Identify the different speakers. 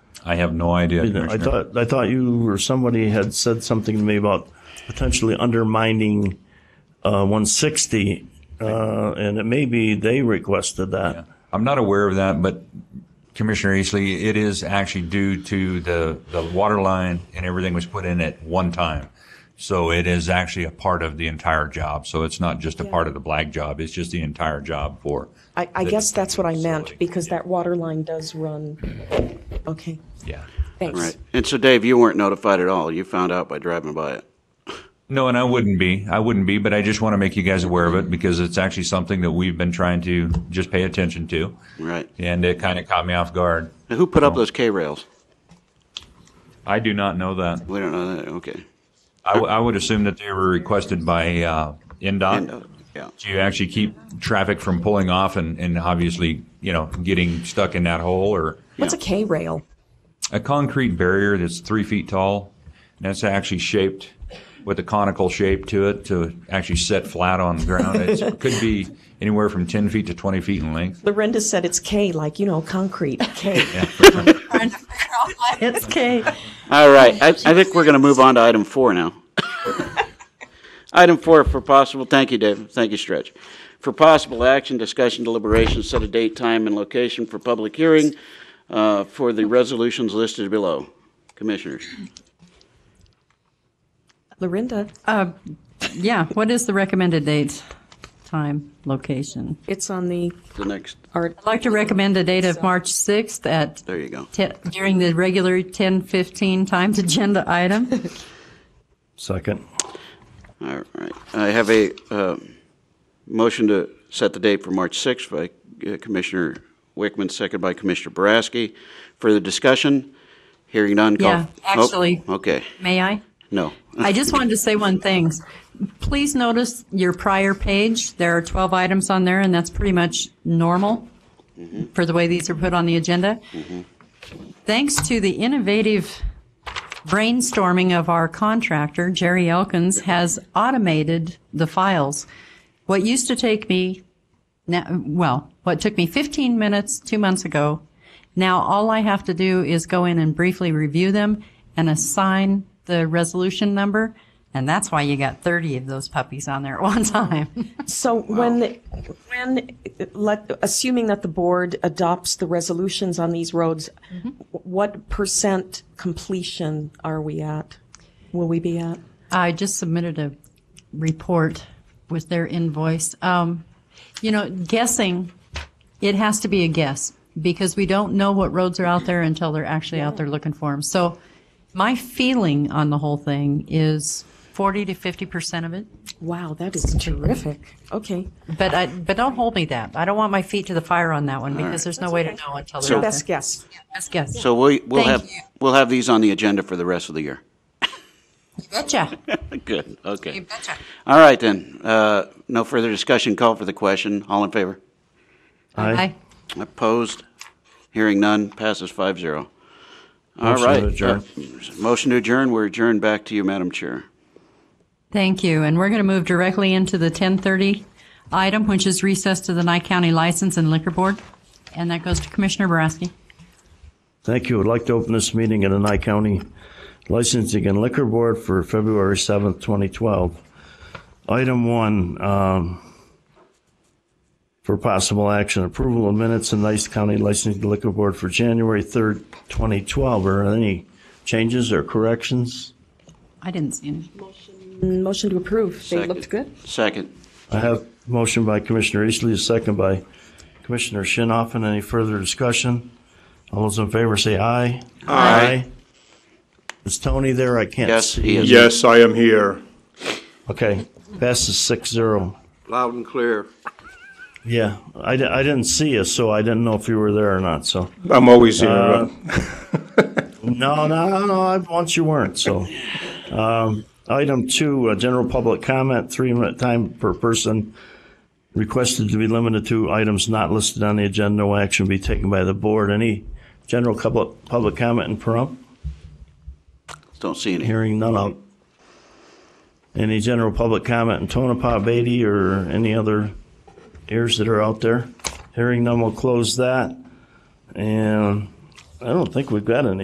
Speaker 1: I have no idea,
Speaker 2: I
Speaker 1: Commissioner.
Speaker 2: thought, I thought you or somebody had said something to me about potentially undermining, uh, one sixty. Uh, and it may be they requested that.
Speaker 1: I'm not aware of that, but Commissioner Eastley, it is actually due to the, the water line and everything was put in at one time. So it is actually a part of the entire job. So it's not just a part of the black job. It's just the entire job for.
Speaker 3: I, I guess that's what I meant,
Speaker 1: Facility,
Speaker 3: because
Speaker 1: yeah.
Speaker 3: that water line does run, okay,
Speaker 1: Yeah.
Speaker 3: thanks.
Speaker 4: Right. And so, Dave, you weren't notified at all. You found out by driving by it.
Speaker 1: No, and I wouldn't be. I wouldn't be, but I just want to make you guys aware of it because it's actually something that we've been trying to just pay attention to.
Speaker 4: Right.
Speaker 1: And it kind of caught me off guard.
Speaker 4: And who put up those K rails?
Speaker 1: I do not know that.
Speaker 4: We don't know that. Okay.
Speaker 1: I, w- I would assume that they were requested by uh,
Speaker 4: And, uh,
Speaker 1: NDOT
Speaker 4: yeah.
Speaker 1: to actually keep traffic from pulling off and, and obviously, you know, getting stuck in that hole or
Speaker 3: What's a K-rail?
Speaker 1: a concrete barrier that's three feet tall. And that's actually shaped with a conical shape to it to actually set flat on the ground. It's, it could be anywhere from 10 feet to 20 feet in length.
Speaker 3: Lorinda said it's K, like, you know, concrete, K. It's K.
Speaker 4: All right. I, I think we're going to move on to item four now. item four for possible. Thank you, Dave. Thank you, Stretch. For possible action, discussion, deliberation, set a date, time, and location for public hearing uh, for the resolutions listed below. Commissioners.
Speaker 3: Lorinda,
Speaker 5: Yeah, what is the recommended date, time, location?
Speaker 3: it's on the,
Speaker 4: The next.
Speaker 3: art.
Speaker 5: I'd like to recommend a date of March 6th at,
Speaker 4: There you go.
Speaker 5: te- during the regular 10:15 times agenda item.
Speaker 2: Second.
Speaker 4: All right. I have a um, motion to set the date for March 6th by uh, Commissioner Wickman, second by Commissioner Boraski. Further discussion? Hearing none, call.
Speaker 5: Yeah,
Speaker 4: Oh,
Speaker 5: actually-
Speaker 4: Okay,
Speaker 5: May I?
Speaker 4: no.
Speaker 5: I just wanted to say one thing. Please notice your prior page. There are 12 items on there, and that's pretty much normal for the way these are put on the agenda. Thanks to the innovative brainstorming of our contractor, Jerry Elkins, has automated the files. What used to take me, now, well, what took me 15 minutes two months ago, now all I have to do is go in and briefly review them and assign the resolution number. And that's why you got 30 of those puppies on there at one time.
Speaker 3: so when, when, let, assuming that the board adopts the resolutions on these roads, what percent completion are we at? Will we be at?
Speaker 5: I just submitted a report with their invoice. Um, you know, guessing, it has to be a guess because we don't know what roads are out there until they're actually out there looking for them. So my feeling on the whole thing is 40 to 50% of it.
Speaker 3: Wow, that is terrific. Okay,
Speaker 5: But I, but don't hold me that. I don't want my feet to the fire on that one because there's no way to know until they're out
Speaker 3: best
Speaker 5: there.
Speaker 3: guess.
Speaker 5: Best guess.
Speaker 4: So we'll, we'll
Speaker 5: Thank
Speaker 4: have,
Speaker 5: you.
Speaker 4: we'll have these on the agenda for the rest of the year.
Speaker 5: Betcha.
Speaker 4: Good, okay.
Speaker 5: Betcha.
Speaker 4: All right then, Uh, no further discussion, call for the question. All in favor?
Speaker 5: Aye.
Speaker 4: Opposed? Hearing none, passes five zero. All
Speaker 2: Motion to
Speaker 4: right.
Speaker 2: adjourn.
Speaker 4: Uh, Motion to adjourn, we're adjourned back to you, Madam Chair.
Speaker 5: Thank you. And we're going to move directly into the 1030 item, which is recess to the Nye County License and Liquor Board. And that goes to Commissioner Boraski.
Speaker 2: Thank you. I'd like to open this meeting at the Nye County Licensing and Liquor Board for February 7th, 2012. Item one, um, for possible action, approval of minutes in Nye County Licensing and Liquor Board for January 3rd, 2012. Are there any changes or corrections?
Speaker 5: I didn't see any.
Speaker 3: Motion to approve. They looked good.
Speaker 4: Second.
Speaker 2: I have motion by Commissioner Eastley, a second by Commissioner Shinoffen. Any further discussion? All those in favor say aye. Aye. Is Tony there? I can't
Speaker 4: Yes,
Speaker 2: see.
Speaker 4: he is.
Speaker 6: Yes, I am here.
Speaker 2: Okay, passes six zero.
Speaker 7: Loud and clear.
Speaker 2: Yeah, I, di- I didn't see you, so I didn't know if you were there or not, so.
Speaker 6: I'm always here.
Speaker 2: No, no, no, no, I, once you weren't, so. Um, item two, uh, general public comment, three minute time per person. Requested to be limited to items not listed on the agenda, no action be taken by the board. Any general public, public comment in Pahrump?
Speaker 4: Don't see any.
Speaker 2: Hearing none of. Any general public comment in Tonopah, Beatty, or any other ears that are out there? Hearing none, we'll close that. And I don't think we've got any.